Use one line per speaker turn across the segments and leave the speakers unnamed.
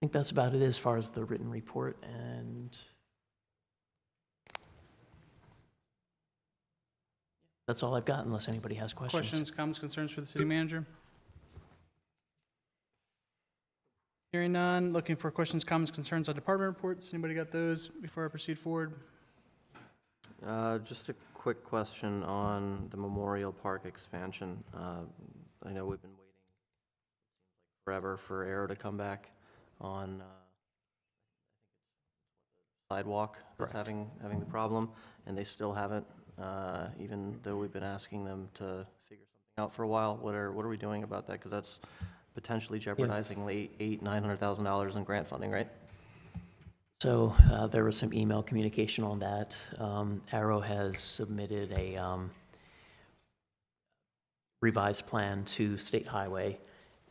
think that's about it as far as the written report and that's all I've got unless anybody has questions.
Questions, comments, concerns for the city manager? Hearing none, looking for questions, comments, concerns on department reports. Anybody got those before I proceed forward?
Uh, Just a quick question on the Memorial Park expansion. Uh, I know we've been waiting forever for Arrow to come back on uh, sidewalk that's
Correct.
having, having the problem, and they still haven't, uh, even though we've been asking them to figure something out for a while. What are, what are we doing about that? Because that's potentially jeopardizing eight, eight, nine hundred thousand dollars in grant funding, right?
So uh, there was some email communication on that. Um, Arrow has submitted a um, revised plan to State Highway,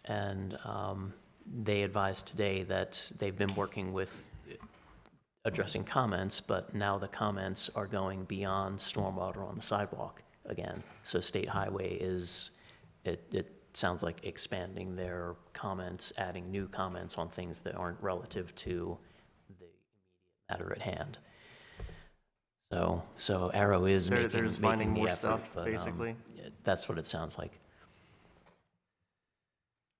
and um, they advised today that they've been working with addressing comments, but now the comments are going beyond stormwater on the sidewalk again. So State Highway is, it, it sounds like expanding their comments, adding new comments on things that aren't relative to the matter at hand. So, so Arrow is
They're-
making,
they're just finding
making the
more
effort,
stuff,
but, um,
basically?
That's what it sounds like,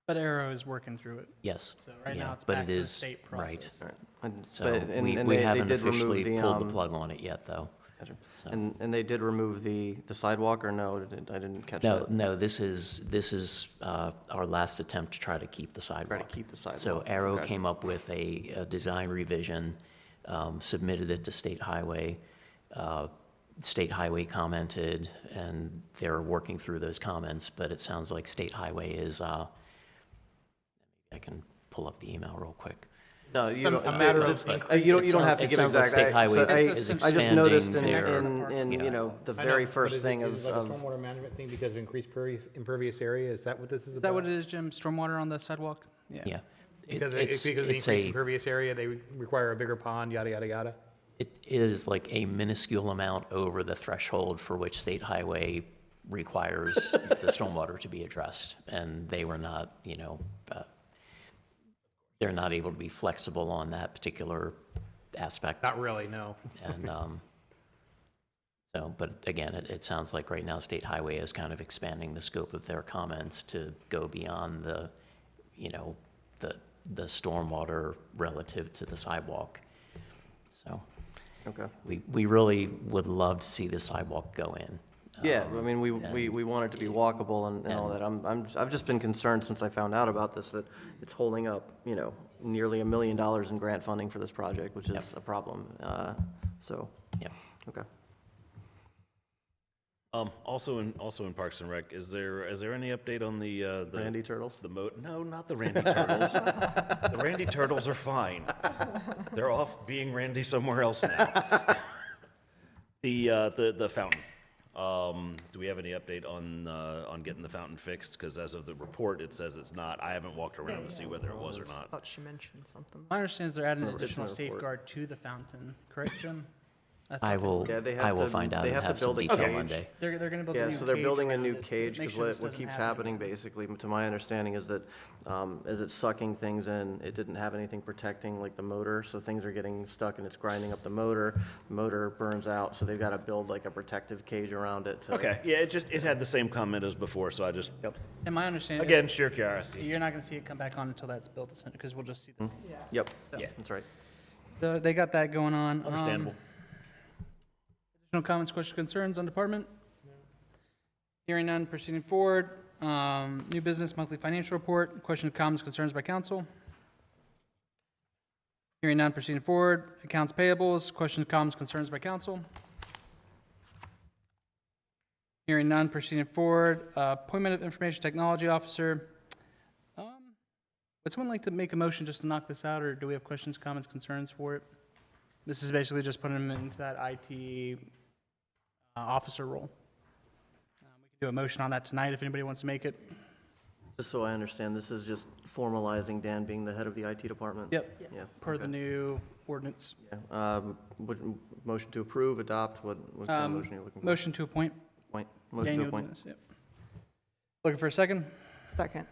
But Arrow is working through it,
yes.
so right now
Yeah,
it's
but
back
it
to the
is-
state
right.
process.
All right. And-
So
but- and-
we,
and
we
they- they
haven't
did remove
officially pulled the
um,
plug on it yet, though.
Gotcha.
So-
And, and they did remove the, the sidewalk, or no, did- I didn't catch
No,
that?
no, this is, this is uh, our last attempt to try to keep the
Try to
sidewalk.
keep the sidewalk.
So Arrow
Okay.
came up with a, a design revision, um, submitted it to State Highway. Uh, State Highway commented, and they're working through those comments, but it sounds like State Highway is, uh, I can pull up the email real quick.
No, you don't,
a
uh,
matter
the-
of
the-
increasing-
you don't, you
It
don't
sounds-
have to
it
give
sounds like
exact.
State Highway
I-
is
I just noticed in,
expanding their-
in, in, you know, the
I know,
very
but
first
is it-
thing
is it
of,
like a
of,
Stormwater management thing because of increased pervious- impervious area, is that what this is about?
Is that what it is, Jim? Stormwater on the sidewalk?
Yeah. It-
Because it-
it's-
because of the
it's a-
increased impervious area, they re- require a bigger pond, yada, yada, yada?
It is like a minuscule amount over the threshold for which state highway requires the stormwater to be addressed. And they were not, you know, uh, they're not able to be flexible on that particular aspect.
Not really, no.
And um, so, but again, it, it sounds like right now state highway is kind of expanding the scope of their comments to go beyond the, you know, the, the stormwater relative to the sidewalk. So
okay.
we, we really would love to see the sidewalk go in.
Yeah,
Um,
I mean, we, we, we want it to be walkable and, and all that. I'm, I'm, I've just been concerned since I found out about this, that it's holding up, you know, nearly a million dollars in grant funding for this project, which is a problem, uh, so.
Yep.
Okay.
Um, also in, also in Parks and Rec, is there, is there any update on the, uh, the?
Randy Turtles?
The mo, no, not the Randy Turtles. The Randy Turtles are fine. They're off being Randy somewhere else now. The, uh, the, the fountain. Um, do we have any update on, uh, on getting the fountain fixed? Because as of the report, it says it's not. I haven't walked around to see whether it was or not.
Thought she mentioned something.
My understanding is they're adding an additional
report.
safeguard to the fountain, correct, Jim?
I will,
Yeah, they have
I will
to-
find out
they
and
have to
have some
build a
detail
cage.
Monday.
They're, they're gonna build a new
Yeah,
cage.
so they're building a
around
new
it to
cage,
make
because
sure this
what, what
doesn't
keeps
happen
happening
again.
basically, to my understanding, is that, um, is it's sucking things in, it didn't have anything protecting like the motor, so things are getting stuck and it's grinding up the motor, the motor burns out, so they've got to build like a protective cage around it to.
Okay, yeah, it just, it had the same comment as before, so I just,
Yep,
And my understanding
again,
is,
sheer curiosity.
you're not gonna see it come back on until that's built, because we'll just see this.
yep,
Yeah.
that's right.
So They got that going on. Um,
Understandable.
Additional comments, questions, concerns on department? Hearing none, proceeding forward. Um, New business, monthly financial report, questions, comments, concerns by council? Hearing none, proceeding forward. Accounts payables, questions, comments, concerns by council? Hearing none, proceeding forward. Uh, Appointment of Information Technology Officer. Um, Would someone like to make a motion just to knock this out, or do we have questions, comments, concerns for it? This is basically just putting him into that IT uh, officer role. Um, We can Do a motion on that tonight if anybody wants to make it.
Just so I understand, this is just formalizing Dan being the head of the IT department?
Yep.
Yeah.
Per the
okay.
new ordinance.
Yeah, um, would, motion to approve, adopt, what, what kind of
Um,
motion are you looking for?
Motion to appoint.
Point, motion to
Daniel
appoint.
Dennis, yep. Looking for a second?
Second.